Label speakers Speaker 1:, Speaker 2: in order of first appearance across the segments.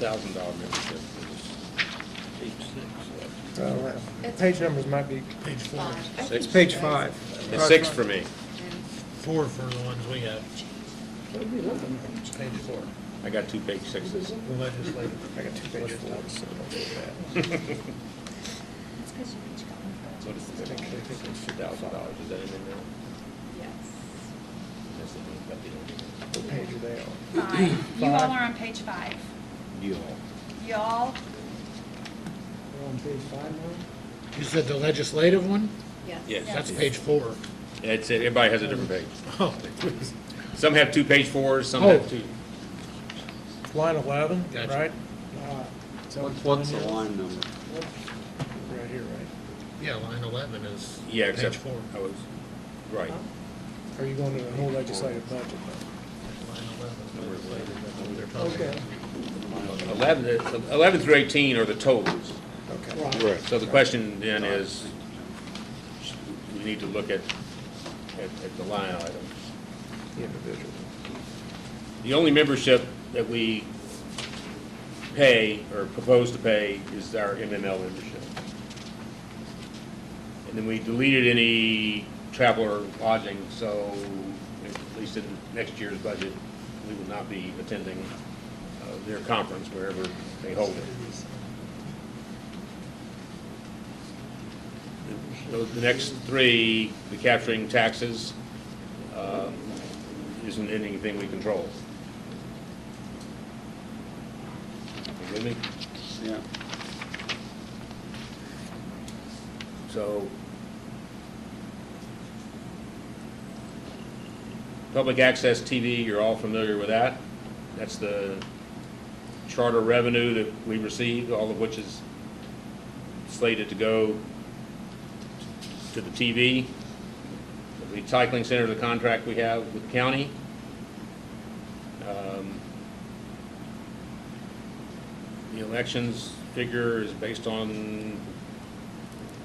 Speaker 1: thousand dollar membership is page six.
Speaker 2: Well, that-
Speaker 3: It's-
Speaker 2: Page numbers might be,
Speaker 4: Page four,
Speaker 3: Five. I
Speaker 1: Six.
Speaker 3: think
Speaker 2: it's page
Speaker 3: so.
Speaker 2: five.
Speaker 1: It's six for me.
Speaker 4: four for the ones we have. It's page four,
Speaker 1: I got two page sixes.
Speaker 4: the legislative.
Speaker 2: I got two page fours. so don't do
Speaker 3: It's 'cause you each got one.
Speaker 1: What is this? Two thousand dollars, is that in there?
Speaker 3: Yes.
Speaker 1: That's the thing about the-
Speaker 2: that. What page are they on?
Speaker 5: Five. You all are on page five.
Speaker 1: Deal.
Speaker 5: Y'all,
Speaker 4: You said the legislative one?
Speaker 3: Yes.
Speaker 1: Yes.
Speaker 4: That's page four.
Speaker 1: It's, everybody has a different page.
Speaker 4: Oh,
Speaker 1: Some have two page fours, some
Speaker 4: Oh.
Speaker 1: have two.
Speaker 2: Line eleven,
Speaker 4: Gotcha.
Speaker 2: right?
Speaker 6: What's, what's the line number?
Speaker 2: Right here, right?
Speaker 4: yeah, line eleven is
Speaker 1: Yeah,
Speaker 4: page
Speaker 1: except,
Speaker 4: four.
Speaker 1: I was, right.
Speaker 2: Are you going to the whole legislative budget?
Speaker 4: Line
Speaker 1: Number
Speaker 4: eleven.
Speaker 1: 11.
Speaker 4: They're probably-
Speaker 1: Eleven 11 through eighteen are the totals.
Speaker 2: Okay.
Speaker 1: So the question then is, we need to look at, at, at the line items.
Speaker 2: The individual.
Speaker 1: The only membership that we pay or propose to pay is our MML membership. And then we deleted any travel or lodging, so at least in next year's budget, we will not be attending uh, their conference wherever they hold it. So the next three, the capturing taxes, um, isn't anything we control. You with me?
Speaker 6: Yeah.
Speaker 1: So, public access TV, you're all familiar with that. That's the charter revenue that we received, all of which is slated to go to the TV. The recycling center, the contract we have with the county. Um, The elections figure is based on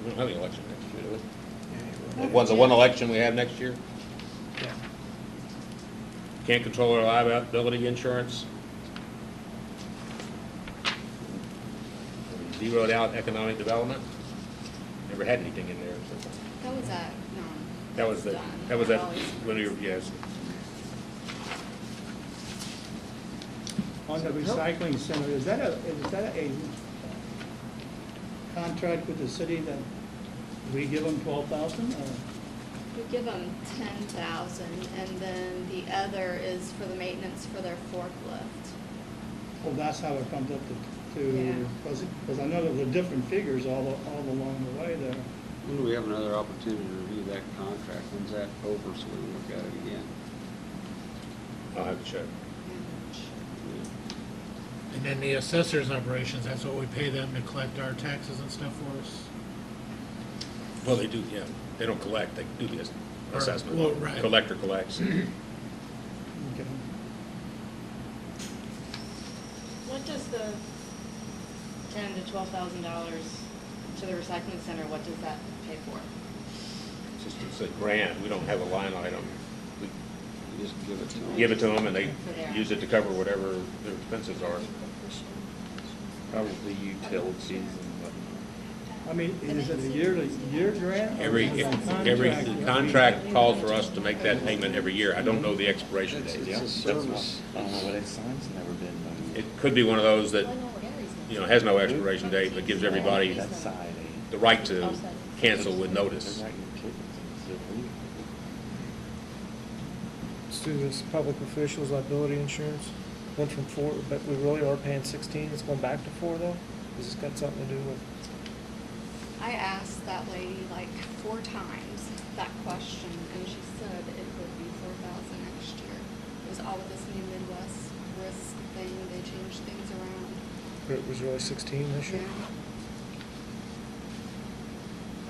Speaker 1: we don't have any election next year, do we? Well, the one election we have next year?
Speaker 2: Yeah.
Speaker 1: Can't control our liability insurance. Zeroed out economic development. Never had anything in there. so-
Speaker 3: That was a, no.
Speaker 1: That was the,
Speaker 3: done.
Speaker 1: that was that,
Speaker 3: always-
Speaker 1: when we were, yes.
Speaker 7: On the recycling center, is that a, is that a contract with the city that we give them twelve thousand? Uh,
Speaker 3: We give them ten thousand, and then the other is for the maintenance for their forklift.
Speaker 7: Well, that's how it comes up to,
Speaker 3: Yeah.
Speaker 7: to, because I know there were different figures all, the- all along the way there.
Speaker 6: When do we have another opportunity to review that contract? When's that over so we can look at it again?
Speaker 1: I'll have to check.
Speaker 4: And then the assessor's operations, that's what we pay them to collect our taxes and stuff for us?
Speaker 1: Well, they do, yeah. They don't collect, they do the ass-
Speaker 4: Or-
Speaker 1: assessment.
Speaker 4: well, right.
Speaker 1: Collector collects.
Speaker 7: Okay.
Speaker 8: What does the ten to twelve thousand dollars to the recycling center, what does that pay for?
Speaker 1: It's just- It's a grant, we don't have a line item. We
Speaker 6: You just give it to them?
Speaker 1: give it to them and they use it to cover whatever their expenses are. Probably utilities and whatnot.
Speaker 7: I mean, is it a yearly, year grant? or
Speaker 1: Every,
Speaker 7: is it a
Speaker 1: every,
Speaker 7: contract that
Speaker 1: the
Speaker 7: we-
Speaker 1: contract calls for us to make that payment every year. I don't know the expiration
Speaker 6: It's
Speaker 1: date.
Speaker 6: it's a service.
Speaker 9: I don't know what it signs, never been done.
Speaker 1: It could be one of those that,
Speaker 8: Well, I know what Gary's gonna
Speaker 1: you know, has no expiration date, but gives everybody
Speaker 9: That side, eh?
Speaker 1: the right to cancel with notice.
Speaker 9: They're not your kids, it's their legal.
Speaker 2: Let's do this public officials liability insurance. Went from four, but we really are paying sixteen. It's going back to four though? Has this got something to do with?
Speaker 3: I asked that lady like four times that question, and she said it would be four thousand next year. It was all of this new Midwest risk thing, they changed things around.
Speaker 2: It was really 16 this year?
Speaker 3: Yeah.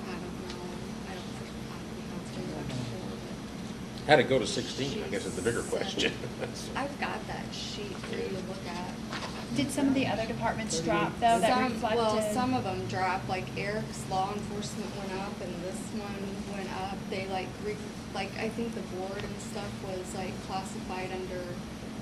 Speaker 3: I don't know, I don't think, I don't think that's been done before,
Speaker 1: How'd it go to sixteen, I guess is the bigger question.
Speaker 3: but I've got that sheet for you to look at.
Speaker 5: did some of the other departments drop though that
Speaker 3: Some, well, some
Speaker 5: reflected?
Speaker 3: of them dropped, like Eric's law enforcement went up and this one went up. They like, re- like, I think the board and stuff was like classified under